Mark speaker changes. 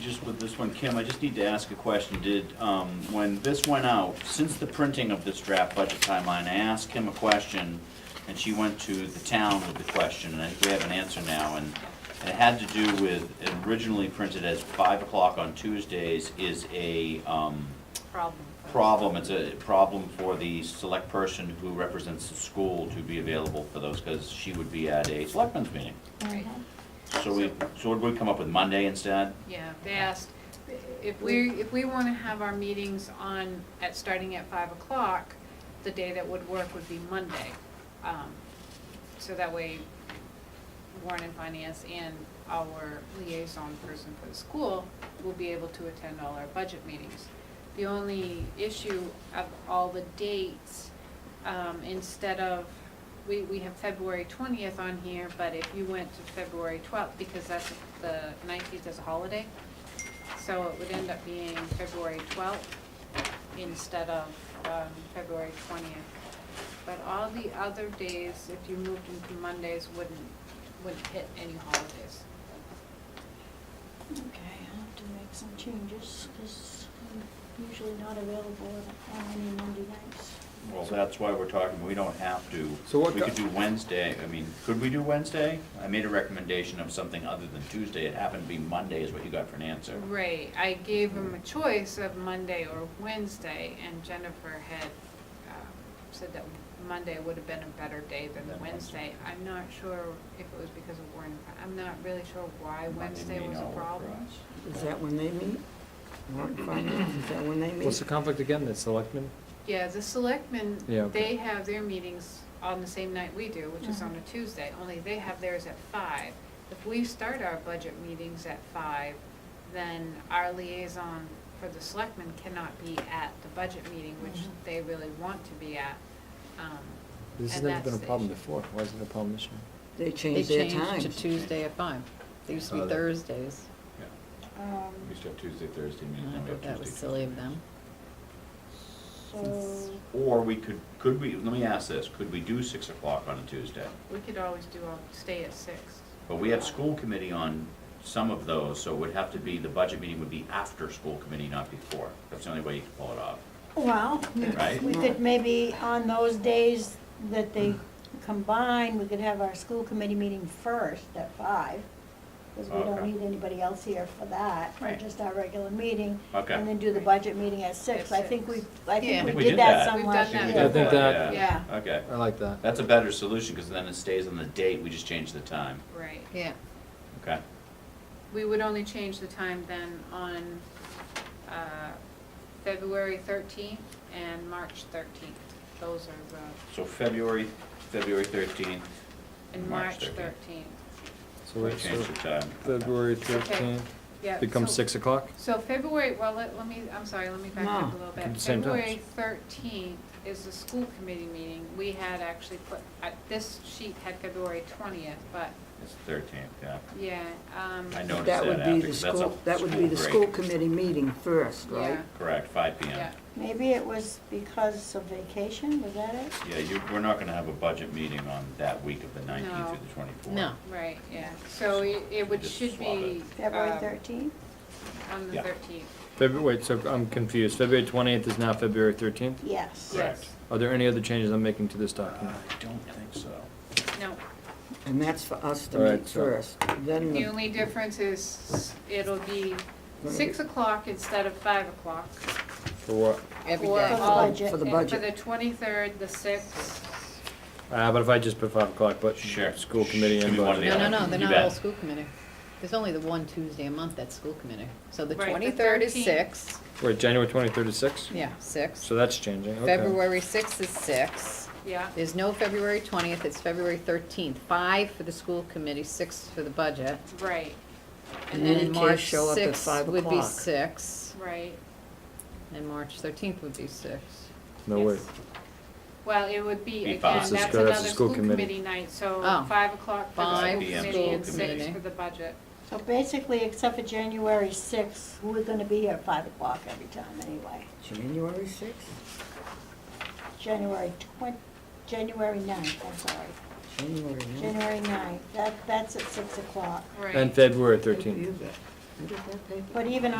Speaker 1: just with this one, Kim, I just need to ask a question. Did, um, when this went out, since the printing of this draft budget timeline, I asked Kim a question, and she went to the town with the question, and I think we have an answer now, and it had to do with, it originally printed as five o'clock on Tuesdays is a, um,
Speaker 2: problem.
Speaker 1: problem, it's a problem for the select person who represents the school to be available for those, because she would be at a selectmen's meeting.
Speaker 2: Right.
Speaker 3: Uh-huh.
Speaker 1: So we, so would we come up with Monday instead?
Speaker 2: Yeah, they asked, if we, if we wanna have our meetings on, at, starting at five o'clock, the day that would work would be Monday. Um, So that way Warren and Finance and our liaison person for the school will be able to attend all our budget meetings. The only issue of all the dates, um, instead of, we, we have February twentieth on here, but if you went to February twelfth, because that's the nineteenth is a holiday, so it would end up being February twelfth instead of, um, February twentieth. But all the other days, if you moved into Mondays, wouldn't, wouldn't hit any holidays.
Speaker 3: Okay, I'll have to make some changes, because I'm usually not available on any Monday nights.
Speaker 1: Well, that's why we're talking, we don't have to.
Speaker 4: So what
Speaker 1: We could
Speaker 4: go-
Speaker 1: do Wednesday, I mean, could we do Wednesday? I made a recommendation of something other than Tuesday, it happened to be Monday is what you got for an answer.
Speaker 2: Right, I gave him a choice of Monday or Wednesday, and Jennifer had um, said that Monday would have been a better day than
Speaker 1: Than Wednesday.
Speaker 2: Wednesday. I'm not sure if it was because of Warren, I'm not really sure why
Speaker 1: Monday
Speaker 2: Wednesday
Speaker 1: may
Speaker 2: was a
Speaker 1: not work for
Speaker 2: problem.
Speaker 1: us.
Speaker 5: Is that when they meet? Warrant finance, is that when they
Speaker 4: What's
Speaker 5: meet?
Speaker 4: the conflict again, the selectmen?
Speaker 2: Yeah, the selectmen,
Speaker 4: Yeah, okay.
Speaker 2: they have their meetings on the same night we do, which is on a
Speaker 6: Mm-hmm.
Speaker 2: Tuesday, only they have theirs at five. If we start our budget meetings at five, then our liaison for the selectmen cannot be at the budget meeting, which
Speaker 3: Mhm.
Speaker 6: Mm-hmm.
Speaker 2: they really want to be at. Um,
Speaker 4: This has
Speaker 2: and
Speaker 4: never
Speaker 2: that's
Speaker 4: been a
Speaker 2: the
Speaker 4: problem
Speaker 2: issue.
Speaker 4: before, why is it a problem this year?
Speaker 5: They
Speaker 6: They
Speaker 5: change their
Speaker 6: changed to
Speaker 5: times.
Speaker 6: Tuesday at five. They used to
Speaker 1: Oh,
Speaker 6: be
Speaker 1: that-
Speaker 6: Thursdays.
Speaker 3: Um,
Speaker 1: We still have Tuesday, Thursday, meeting,
Speaker 6: And I
Speaker 1: then we have
Speaker 6: thought that was
Speaker 1: Tuesday,
Speaker 6: silly of them.
Speaker 3: so,
Speaker 1: Or we could, could we, let me ask this, could we do six o'clock on a Tuesday?
Speaker 2: We could always do, all stay at six.
Speaker 1: But we have school committee on some of those, so it would have to be, the budget meeting would be after school committee, not before. That's the only way you can pull it off.
Speaker 3: well, we-
Speaker 1: Right.
Speaker 3: we could maybe on those days that they combine, we could have our school committee meeting first at five, because we don't
Speaker 1: Okay.
Speaker 3: need anybody else here for that, for
Speaker 1: Right.
Speaker 3: just our regular meeting.
Speaker 1: Okay.
Speaker 3: And then do the budget meeting at six. I think we, I
Speaker 2: Yeah. I
Speaker 3: think
Speaker 2: think
Speaker 3: we
Speaker 1: we
Speaker 3: did
Speaker 1: did
Speaker 3: that
Speaker 1: that.
Speaker 3: some
Speaker 2: We've
Speaker 3: last
Speaker 2: done
Speaker 3: year.
Speaker 2: that.
Speaker 4: I think that-
Speaker 2: Yeah,
Speaker 1: Okay,
Speaker 4: I like that.
Speaker 1: that's a better solution, because then instead of the date, we just change the time,
Speaker 2: right.
Speaker 6: Yeah.
Speaker 1: okay?
Speaker 2: We would only change the time then on uh, February 13th and March 13th. Those are the,
Speaker 1: So February, February thirteenth.
Speaker 2: and March 13th.
Speaker 4: So
Speaker 1: We
Speaker 4: we so
Speaker 1: change the time.
Speaker 4: February thirteenth
Speaker 2: Yeah,
Speaker 4: becomes
Speaker 2: so-
Speaker 4: six o'clock?
Speaker 2: So February, well, let, let me, I'm sorry, let me back up a
Speaker 5: No,
Speaker 2: little
Speaker 4: at
Speaker 2: bit.
Speaker 4: the same time.
Speaker 2: February thirteenth is the school committee meeting. We had actually put, uh, this sheet had February twentieth, but,
Speaker 1: It's thirteenth, yeah.
Speaker 2: yeah, um,
Speaker 1: I noticed
Speaker 5: That
Speaker 1: that
Speaker 5: would
Speaker 1: after,
Speaker 5: be the
Speaker 1: 'cause that's a
Speaker 5: school, that would be the
Speaker 1: break.
Speaker 5: school committee meeting first, right?
Speaker 2: yeah,
Speaker 1: Correct, five P
Speaker 2: yeah.
Speaker 1: M.
Speaker 3: Maybe it was because of vacation, was that it?
Speaker 1: Yeah, you, we're not gonna have a budget meeting on that week of the nineteenth
Speaker 2: No.
Speaker 1: through the twenty-fourth.
Speaker 6: No.
Speaker 2: Right, yeah, so it, it would,
Speaker 1: Just
Speaker 2: should
Speaker 1: swap
Speaker 2: be.
Speaker 1: it.
Speaker 3: February
Speaker 2: um,
Speaker 3: thirteenth?
Speaker 2: On the
Speaker 1: Yeah.
Speaker 2: thirteenth,
Speaker 4: February, wait, so I'm confused, February twentieth is now February thirteenth?
Speaker 3: Yes.
Speaker 1: Correct.
Speaker 2: yes,
Speaker 4: Are there any other changes I'm making to this
Speaker 1: Uh, I
Speaker 4: document?
Speaker 1: don't think so.
Speaker 2: no.
Speaker 5: And that's for us to
Speaker 4: All right,
Speaker 5: meet
Speaker 4: so-
Speaker 5: first, then
Speaker 2: The
Speaker 5: the,
Speaker 2: only difference is it'll be six o'clock instead of five o'clock.
Speaker 4: For what?
Speaker 6: Every
Speaker 2: for
Speaker 6: day.
Speaker 3: For the
Speaker 2: all-
Speaker 3: budget.
Speaker 5: For the
Speaker 2: and
Speaker 5: budget.
Speaker 2: For the twenty-third, the sixth,
Speaker 4: Uh, but if I just put five o'clock, but
Speaker 1: Sure.
Speaker 4: school committee
Speaker 1: Give
Speaker 4: and
Speaker 1: me one of
Speaker 4: budget.
Speaker 1: the
Speaker 6: No, no,
Speaker 1: other.
Speaker 6: no, they're
Speaker 1: You
Speaker 6: not
Speaker 1: bet.
Speaker 6: all school committee. There's only the one Tuesday a month that's school committee. So the
Speaker 2: Right, the
Speaker 6: twenty-third is
Speaker 2: 13th.
Speaker 6: six,
Speaker 4: Wait, January twenty-third is six?
Speaker 6: yeah, six.
Speaker 4: So that's changing, okay.
Speaker 6: February sixth is six.
Speaker 2: yeah.
Speaker 6: There's no February twentieth, it's February thirteenth. Five for the school committee, six for the budget.
Speaker 2: Right,
Speaker 5: In
Speaker 6: And
Speaker 5: any
Speaker 6: then
Speaker 5: case,
Speaker 6: March
Speaker 5: show up at
Speaker 6: sixth
Speaker 5: five
Speaker 6: would be
Speaker 5: o'clock.
Speaker 6: six,
Speaker 2: right.
Speaker 6: and March thirteenth would be six.
Speaker 4: No, wait,
Speaker 2: Yes. Well, it would
Speaker 1: Be
Speaker 2: be, again,
Speaker 1: five.
Speaker 2: that's
Speaker 1: This is-
Speaker 4: that's the
Speaker 2: another
Speaker 4: school
Speaker 2: school
Speaker 4: committee.
Speaker 2: committee night, so
Speaker 6: Oh.
Speaker 2: five o'clock for the
Speaker 6: Five
Speaker 1: 5
Speaker 2: school
Speaker 1: p.m.
Speaker 2: committee and
Speaker 1: school
Speaker 2: six
Speaker 6: committee.
Speaker 2: for the budget.
Speaker 3: So basically, except for January sixth, we're gonna be here at five o'clock every time anyway.
Speaker 5: January sixth,
Speaker 3: January twen- January ninth, I'm sorry,
Speaker 5: January ninth.
Speaker 3: January ninth, that, that's at six o'clock.
Speaker 2: Right.
Speaker 4: and February
Speaker 5: Who
Speaker 4: thirteenth.
Speaker 5: is that?
Speaker 7: Did that paper?
Speaker 5: But even